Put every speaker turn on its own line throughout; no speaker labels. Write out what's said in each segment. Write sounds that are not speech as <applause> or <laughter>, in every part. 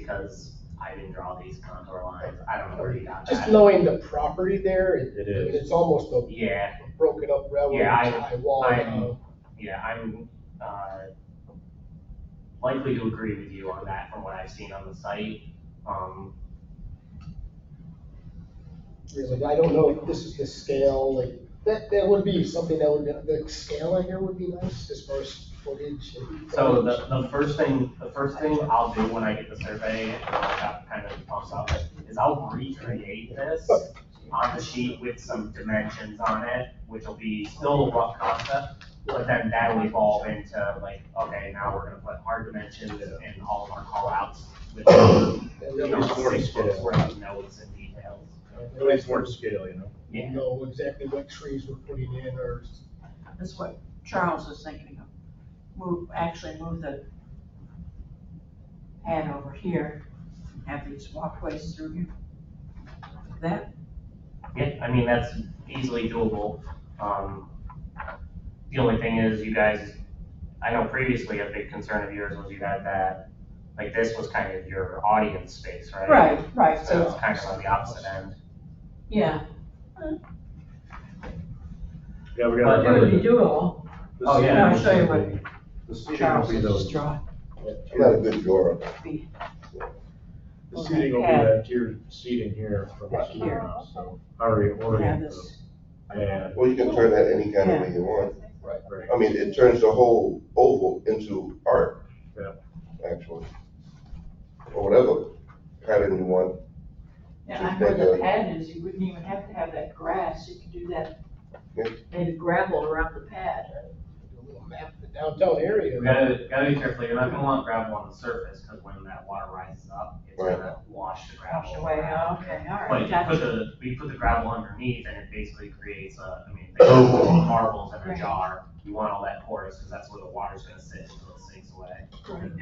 because I didn't draw these contour lines, I don't know where you got
Just
that.
knowing the property there, it-
It
I mean,
is.
it's almost a
Yeah,
broken up railroad
Yeah, I-
tie wall.
I-
uh,
yeah, I'm, uh, likely to agree with you on that from what I've seen on the site. Um,
It's like, I don't know if this is the scale, like, that, that would be something that would, the scale in here would be nice as far as footage. and-
So the, the first thing, the first thing I'll do when I get the survey, and that kind of pumps up, is I'll recreate this on the sheet with some dimensions on it, which will be still a rough concept, but then that'll evolve into like, okay, now we're gonna put our dimensions and all of our callouts with,
And
you
then
know,
It's more
six
scale.
books worth of notes and details.
At least more scale, you know?
we
Yeah,
Know exactly what trees we're putting in or.
That's what Charles was thinking of. Move, actually move the pad over here, and have these walkways through here. That,
yeah, I mean, that's easily doable. Um, the only thing is you guys, I know previously a big concern of yours was you had that, like this was kind of your audience space, right?
right, right,
So
so,
it's kind of on the opposite end.
yeah.
Yeah, we
But
gotta
Do it,
remember.
you do it all.
the
Oh, yeah.
seating
I'll show you
will be- The seating will
Charles
be
was just
those,
drawing.
I got a good drawer.
the seating will be that tiered seating here from
Back
the
here.
around, so already
Yeah,
oriented.
this,
And,
Well, you can turn that any kind of way you want.
right,
I mean, it turns the whole oval into art.
Yeah.
Actually. Or whatever pattern you want.
and I heard the pad is, you wouldn't even have to have that grass, you could do that,
Yeah.
made of gravel around the pad.
a little map of the downtown area.
You gotta, gotta be careful, you're not gonna want gravel on the surface, cause when that water rises up, it's
Right.
gonna wash the gravel.
Washed away, okay, all
But
right,
if you put
<laughs> gotcha.
the, we put the gravel underneath and it basically creates a, I mean, think of marbles in a
Right.
jar. You want all that porous, cause that's where the water's gonna sit until it sinks away.
Right.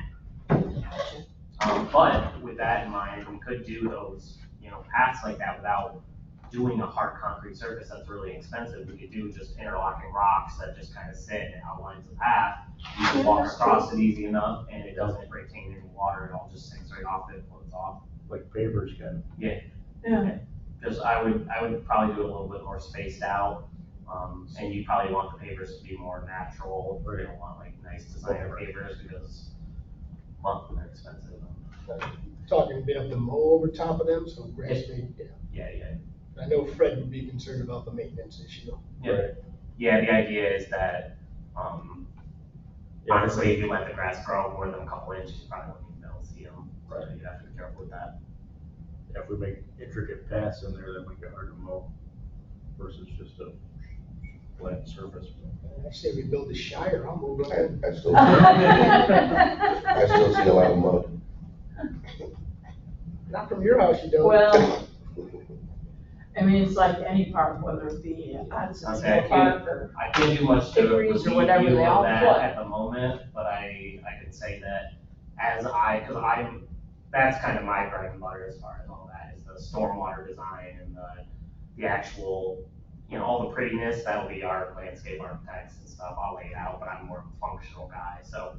Um, but with that in mind, we could do those, you know, paths like that without doing a hard concrete surface that's really expensive. We could do just interlocking rocks that just kind of sit and outlines the path. You can walk across it easy enough and it doesn't retain any water, it all just sinks right off it, floats off.
like papers can.
Yeah,
Just, I would, I would probably do it a little bit more spaced out. Um, and you probably want the pavers to be more natural. You don't want like nice designer pavers because, well, they're expensive.
Talking, they have to mow over top of them, so grass may, yeah.
Yeah, yeah.
I know Fred would be concerned about the maintenance issue.
Yeah.
Right.
Yeah, the idea is that, um,
Yeah,
honestly, if you let the grass grow more than a couple inches, you probably won't even be able to see them. So
Right.
you have to be careful with that.
If we make intricate paths in there, that might get hard to mow versus just a flat surface.
I say we build the Shire, I'll move on.
I, I
<laughs>
still, I still see a lot of mud.
Not from your house, you don't.
Well, I mean, it's like any park, whether it be on
Okay, I
Central
can't-
Park or,
I can't do much to
Degrees or
relieve
whatever
you
they
of
all
that
put.
at the moment, but I, I can say that as I, because I'm, that's kind of my bread and butter as far as all that, is the stormwater design and the, the actual, you know, all the prettiness, that'll be our landscape architects and stuff, I'll lay it out, but I'm more of a functional guy, so,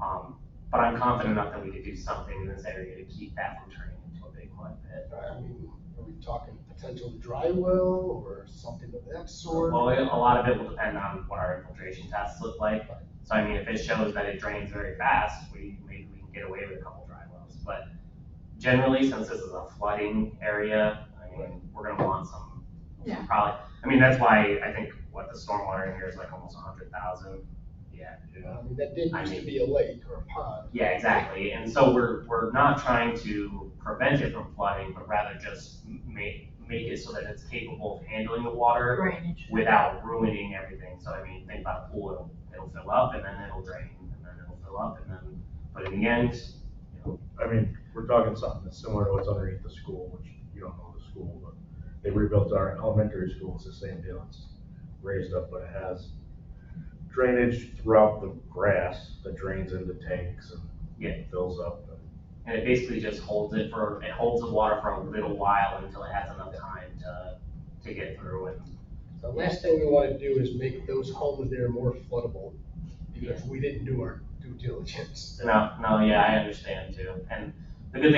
um, but I'm confident enough that we could do something in this area to keep that from turning into a big mud pit.
I mean, are we talking potential dry well or something of that sort?
Well, it- a lot of it will depend on what our infiltration tests look like. So I mean, if it shows that it drains very fast, we, maybe we can get away with a couple dry wells. But generally, since this is a flooding area, I mean, we're gonna want some,
Yeah.
probably, I mean, that's why I think what the stormwater in here is like almost a hundred thousand. Yeah.
I mean, that did used to be a lake or a pond.
Yeah, exactly. And so we're, we're not trying to prevent it from flooding, but rather just make, make it so that it's capable of handling the water
drainage.
without ruining everything. So I mean, think about a pool, it'll, it'll fill up and then it'll drain and then it'll fill up and then, but in the end, you know,
I mean, we're talking something that's similar to what's underneath the school, which you don't know the school, but they rebuilt our elementary school, it's the same deal, it's raised up, but it has drainage throughout the grass that drains into tanks and
Yeah.
fills up.
and it basically just holds it for, it holds the water for a little while until it has enough time to, to get through and
The last thing we want to do is make those homes there more floodable because we didn't do our due diligence.
No, no, yeah, I understand too. And